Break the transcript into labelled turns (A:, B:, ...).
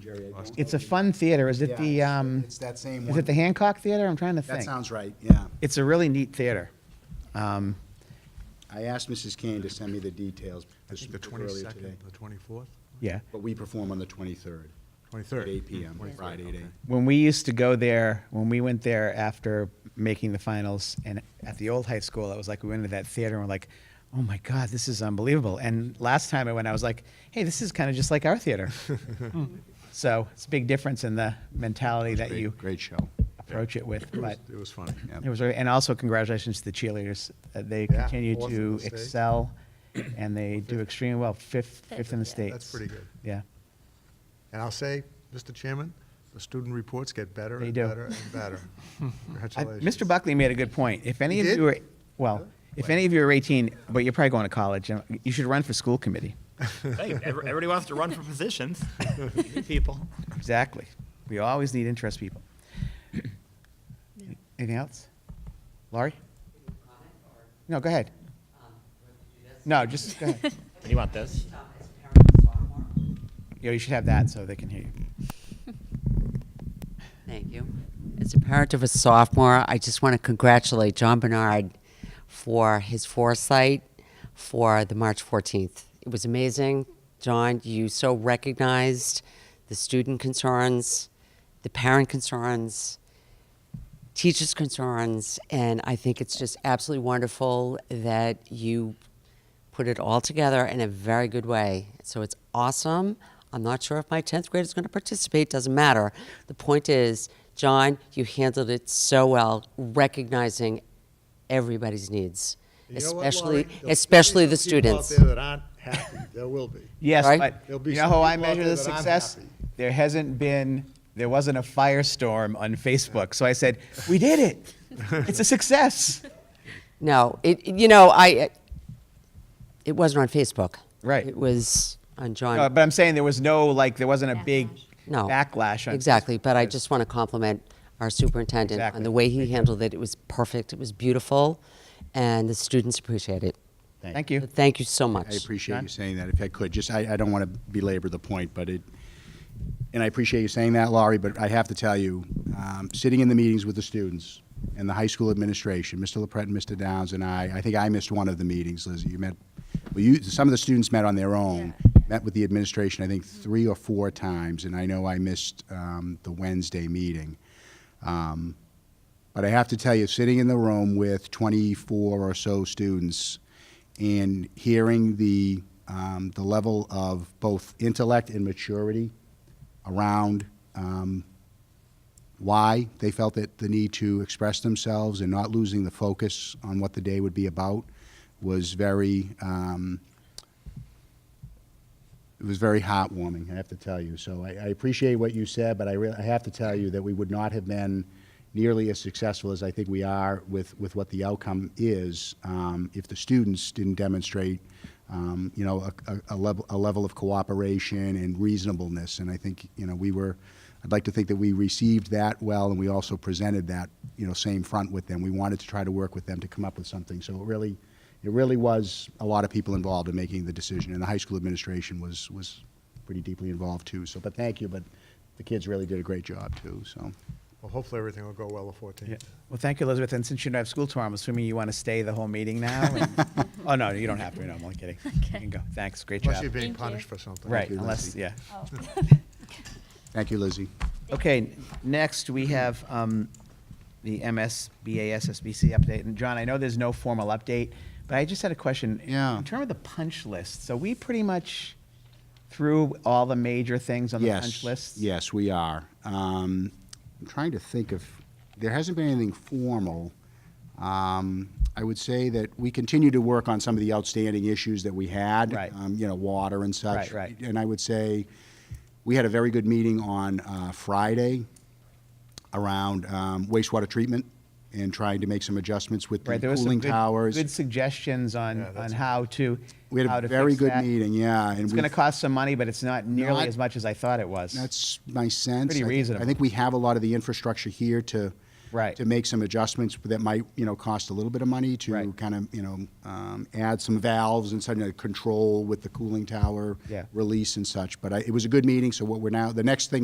A: Jerry, I don't.
B: It's a fun theater. Is it
A: Yeah,
B: the,
A: it's-
B: um,
A: It's that same
B: is
A: one.
B: it the Hancock Theater? I'm trying to
A: That
B: think.
A: sounds right, yeah.
B: It's a really neat theater. Um,
A: I asked Mrs. Kane to send me the details
C: I
A: this
C: think the
A: earlier today.
C: twenty-second, the twenty-fourth,
B: yeah.
A: But we perform on the 23rd,
C: twenty-third.
A: at 8 PM, Friday at 8.
B: When we used to go there, when we went there after making the finals and at the old high school, it was like we went into that theater and we're like, oh my God, this is unbelievable. And last time I went, I was like, hey, this is kind of just like our theater. Hmm. so it's a big difference in the mentality that
A: Great-
B: you
A: Great show.
B: approach it with. But
C: It was fun.
A: Yeah.
B: It was, very- and also congratulations to the cheerleaders. Uh, They
C: Yeah,
B: continue
C: fourth in
B: to
C: the state.
B: excel, and they do extremely well, fifth, fifth in the state.
C: That's pretty good.
B: Yeah.
C: And I'll say, Mr. Chairman, the student reports get better
B: They
C: and
B: do.
C: better and better.
B: I-
C: Congratulations.
B: Mr. Buckley made a good point. If any
C: He
B: of
C: did?
B: you are, well, if any of you are 18, but you're probably going to college, you know, you should run for school committee.
D: Hey, ev- everybody wants to run for positions. You need People.
B: Exactly. We always need interest people. Anything else? Laurie? No, go ahead. No, just, go ahead.
D: You want this?
B: You know, you should have that so they can hear you.
E: Thank you. As a parent of a sophomore, I just want to congratulate John Bernard for his foresight for the March 14th. It was amazing. John, you so recognized the student concerns, the parent concerns, teachers' concerns, and I think it's just absolutely wonderful that you put it all together in a very good way. So it's awesome. I'm not sure if my 10th grade is going to participate, doesn't matter. The point is, John, you handled it so well, recognizing everybody's needs,
F: You know what,
E: especially,
F: Laurie? There'll still
E: especially
F: be
E: the
F: some people out
E: students.
F: there that aren't happy. There will be.
B: Yes,
E: Right?
B: but
F: There'll be
B: you know
F: some
B: how I
F: people out
B: measure the
F: there that I'm
B: success?
F: happy.
B: There hasn't been, there wasn't a firestorm on Facebook. So I said, we did it. It's a success.
E: No, it, you know, I, it wasn't on Facebook.
B: Right.
E: It was on John.
B: Uh, but I'm saying there was no, like, there wasn't a big
E: no
B: backlash on
E: exactly but i
B: because-
E: just want to compliment our superintendent
B: Exactly.
E: on the way he handled it it was perfect it was beautiful and the students appreciate it
B: Thank you.
E: thank you so much
A: I appreciate
B: John?
A: you saying that, if I could, just, I, I don't want to belabor the point, but it, and I appreciate you saying that, Laurie, but I have to tell you, um, sitting in the meetings with the students and the high school administration, Mr. LaPret and Mr. Downs and I, I think I missed one of the meetings, Lizzie, you met, well, you, some of the students met on their own, met with the administration, I think, three or four times, and I know I missed, um, the Wednesday meeting. Um, But I have to tell you, sitting in the room with 24 or so students and hearing the, um, the level of both intellect and maturity around um, why they felt that the need to express themselves and not losing the focus on what the day would be about was very, um, it was very heartwarming, I have to tell you. So I, I appreciate what you said, but I, rea- I have to tell you that we would not have been nearly as successful as I think we are with, with what the outcome is um, if the students didn't demonstrate, um, you know, a, a, a, level, a level of cooperation and reasonableness. And I think, you know, we were, I'd like to think that we received that well and we also presented that, you know, same front with them. We wanted to try to work with them to come up with something. So it really, it really was a lot of people involved in making the decision, and the high school administration was, was pretty deeply involved too. So, but thank you, but the kids really did a great job too, so.
C: Well, hopefully everything will go well the fourteenth.
B: Well, thank you, Elizabeth. And since you don't have school tomorrow, I'm assuming you want to stay the whole meeting now? and- oh, no, you don't have to. No, I'm only kidding. You can go. Thanks. Great
C: Unless you're
B: job.
C: being
G: Thank you.
C: punished for something.
B: Right,
A: you,
B: unless,
A: Lizzie.
B: yeah.
A: Thank you, Lizzie.
B: Okay, n- next, we have um, the MSBA SSBC update. And John, I know there's no formal update, but I just had a question.
A: Yeah.
B: In terms of the punch list, so we pretty much threw all the major things on the
A: yes,
B: punch list?
A: Yes, we are. Um, I'm trying to think of, there hasn't been anything formal. Um, I would say that we continue to work on some of the outstanding issues that we had.
B: Right.
A: Um, you know, water and such.
B: Right, right.
A: And I would say, we had a very good meeting on uh, Friday around um, wastewater treatment and trying to make some adjustments with the
B: Right, there was some
A: cooling
B: good-
A: towers.
B: Good suggestions on,
C: Yeah,
B: on
C: that's-
B: how to,
A: We
B: how
A: had
B: to
A: a very
B: fix
A: good
B: that.
A: meeting, yeah. and
B: It's going to
A: we've-
B: cost some money, but it's not nearly
A: Not-
B: as much as I thought it was.
A: That's my sense.
B: Pretty
A: I-
B: reasonable.
A: I think we have a lot of the infrastructure here to
B: Right.
A: to make some adjustments that might, you know, cost a little bit of money to
B: Right.
A: kind of, you know, um, add some valves and some uh, control with the cooling tower
B: Yeah.
A: release and such. But I, it was a good meeting. So what we're now the next thing.